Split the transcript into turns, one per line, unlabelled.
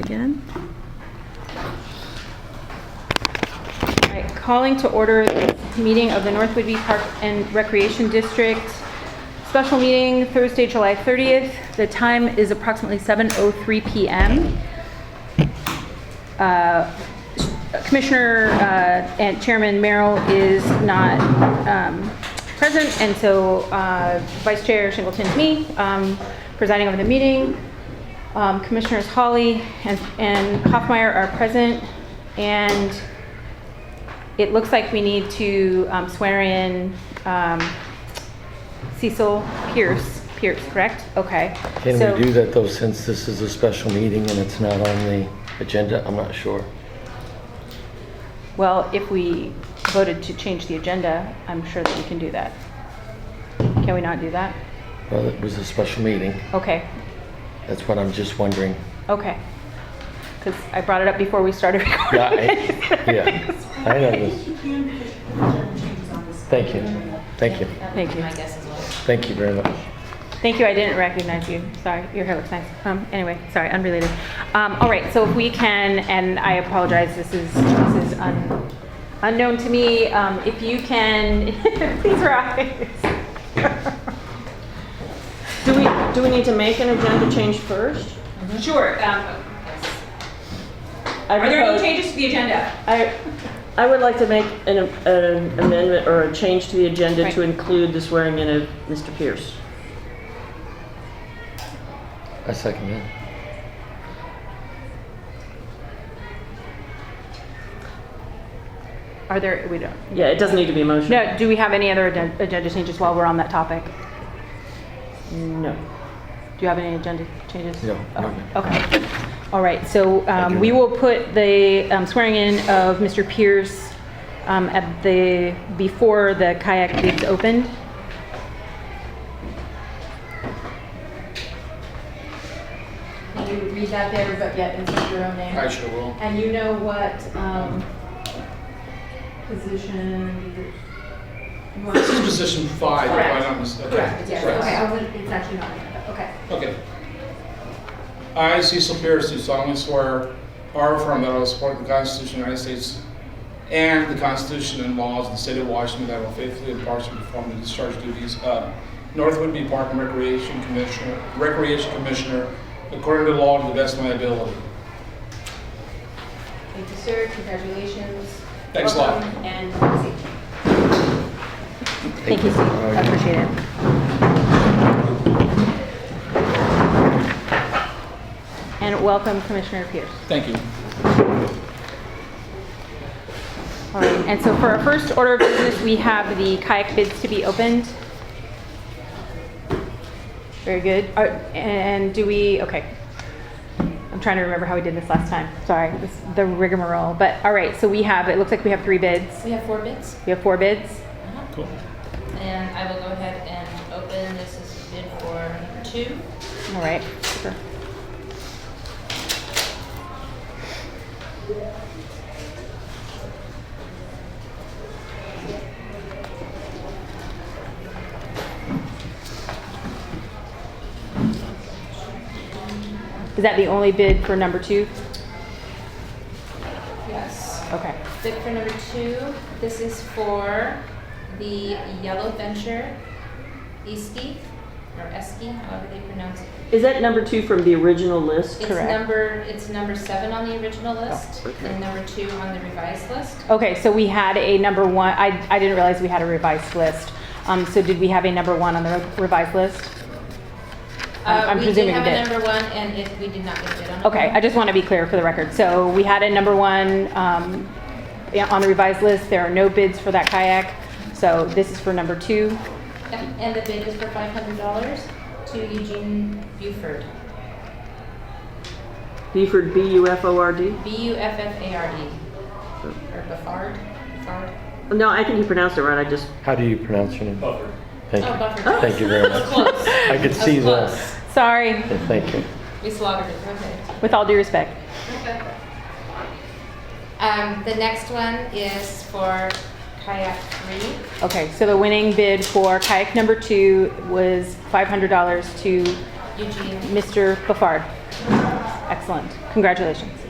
again. All right, calling to order this meeting of the North Whidbey Park and Recreation District. Special meeting Thursday, July 30th. The time is approximately 7:03 PM. Uh, Commissioner uh, and Chairman Merrill is not um, present, and so uh, Vice Chair Singleton's me, um, presiding over the meeting. Um, Commissioners Hawley and and Hoffmeyer are present, and it looks like we need to um, swear in um, Cecil Pierce, Pierce, correct? Okay.
Can
So-
we do that though, since this is a special meeting and it's not on the agenda? I'm not sure.
Well, if we voted to change the agenda, I'm sure that we can do that. Can we not do that?
Well, it was a special meeting.
Okay,
That's what I'm just wondering.
okay. Because I brought it up before we started recording.
Yeah, I- yeah. I know this. Thank you. Thank you.
Thank you.
Thank you very much.
Thank you, I didn't recognize you. Sorry, your hair looks nice. Um, anyway, sorry, unrelated. Um, all right, so if we can, and I apologize, this is, this is un, unknown to me. Um, if you can, please rise.
Do we, do we need to make an agenda change first?
Sure. um,
I
Are there any
propose-
changes to the agenda?
I, I would like to make an an amendment or a change to the agenda
Right.
to include the swearing in of Mr. Pierce.
I second that.
Are there, we don't.
Yeah, it doesn't need to be a motion.
No, do we have any other aden- agenda changes while we're on that topic?
No.
Do you have any agenda changes?
No,
Oh,
no, no.
Okay. All right, so um,
do
we
not.
will put the um, swearing in of Mr. Pierce um, at the, before the kayak bids opened.
And you read that there, but yet insert your own name.
I sure will.
And you know what, um, position you want?
This is position five, if I'm not mistaken.
Correct, yes, okay, I was, it's actually not, in there, okay.
Okay. I, Cecil Pierce, do solemnly swear or affirm that I will support the Constitution of the United States and the Constitution and laws of the state of Washington, that I will faithfully and impartially perform the discharge duties of North Whitby Park and Recreation Commissioner, Recreation Commissioner, according to law to the best of my ability.
Thank you, sir, congratulations.
Thanks a lot.
Welcome And proceed.
Thank you, Steve. I appreciate it. And welcome Commissioner Pierce.
Thank you.
All right, Um, and so for our first order of business, we have the kayak bids to be opened. Very good. Are- And do we, okay. I'm trying to remember how we did this last time. Sorry, this the rigmarole. But, all right, so we have, it looks like we have three bids.
We have four bids,
We have four bids.
Cool.
and I will go ahead and open, this is bid for number two.
All right. super. Is that the only bid for number two?
Yes.
Okay.
Bid for number two, this is for the Yellow Venture Eski, or Eski, however they pronounce it.
Is that number two from the original list?
It's
Correct. Oh,
number, it's number seven on the original list,
okay.
and number two on the revised list.
Okay, so we had a number one, I, I didn't realize we had a revised list. Um, so did we have a number one on the re- revised list? I'm-
Uh,
I'm presuming
We
we
did
did.
have a number one, and if we did not get a bid on it.
Okay, I just want to be clear for the record. So we had a number one um, yeah, on the revised list. There are no bids for that kayak. So this is for number two.
And the bid is for five hundred dollars to Eugene Buford,
Beaufort, B-U-F-O-R-D?
B-U-F-F-A-R-D. Or Buffard, Buffard.
No, I think you pronounced it right, I just,
How do you pronounce your name?
Buffer.
Thank
Oh,
you.
Bufford.
Thank you very
That was
much.
close.
I could
That
see
was
that.
close.
Sorry,
Yeah, Thank you.
We slaughtered it, okay.
with all due respect.
Um, the next one is for kayak three.
Okay, so the winning bid for kayak number two was $500 to
Eugene,
Mr. Buffard. Excellent. Congratulations.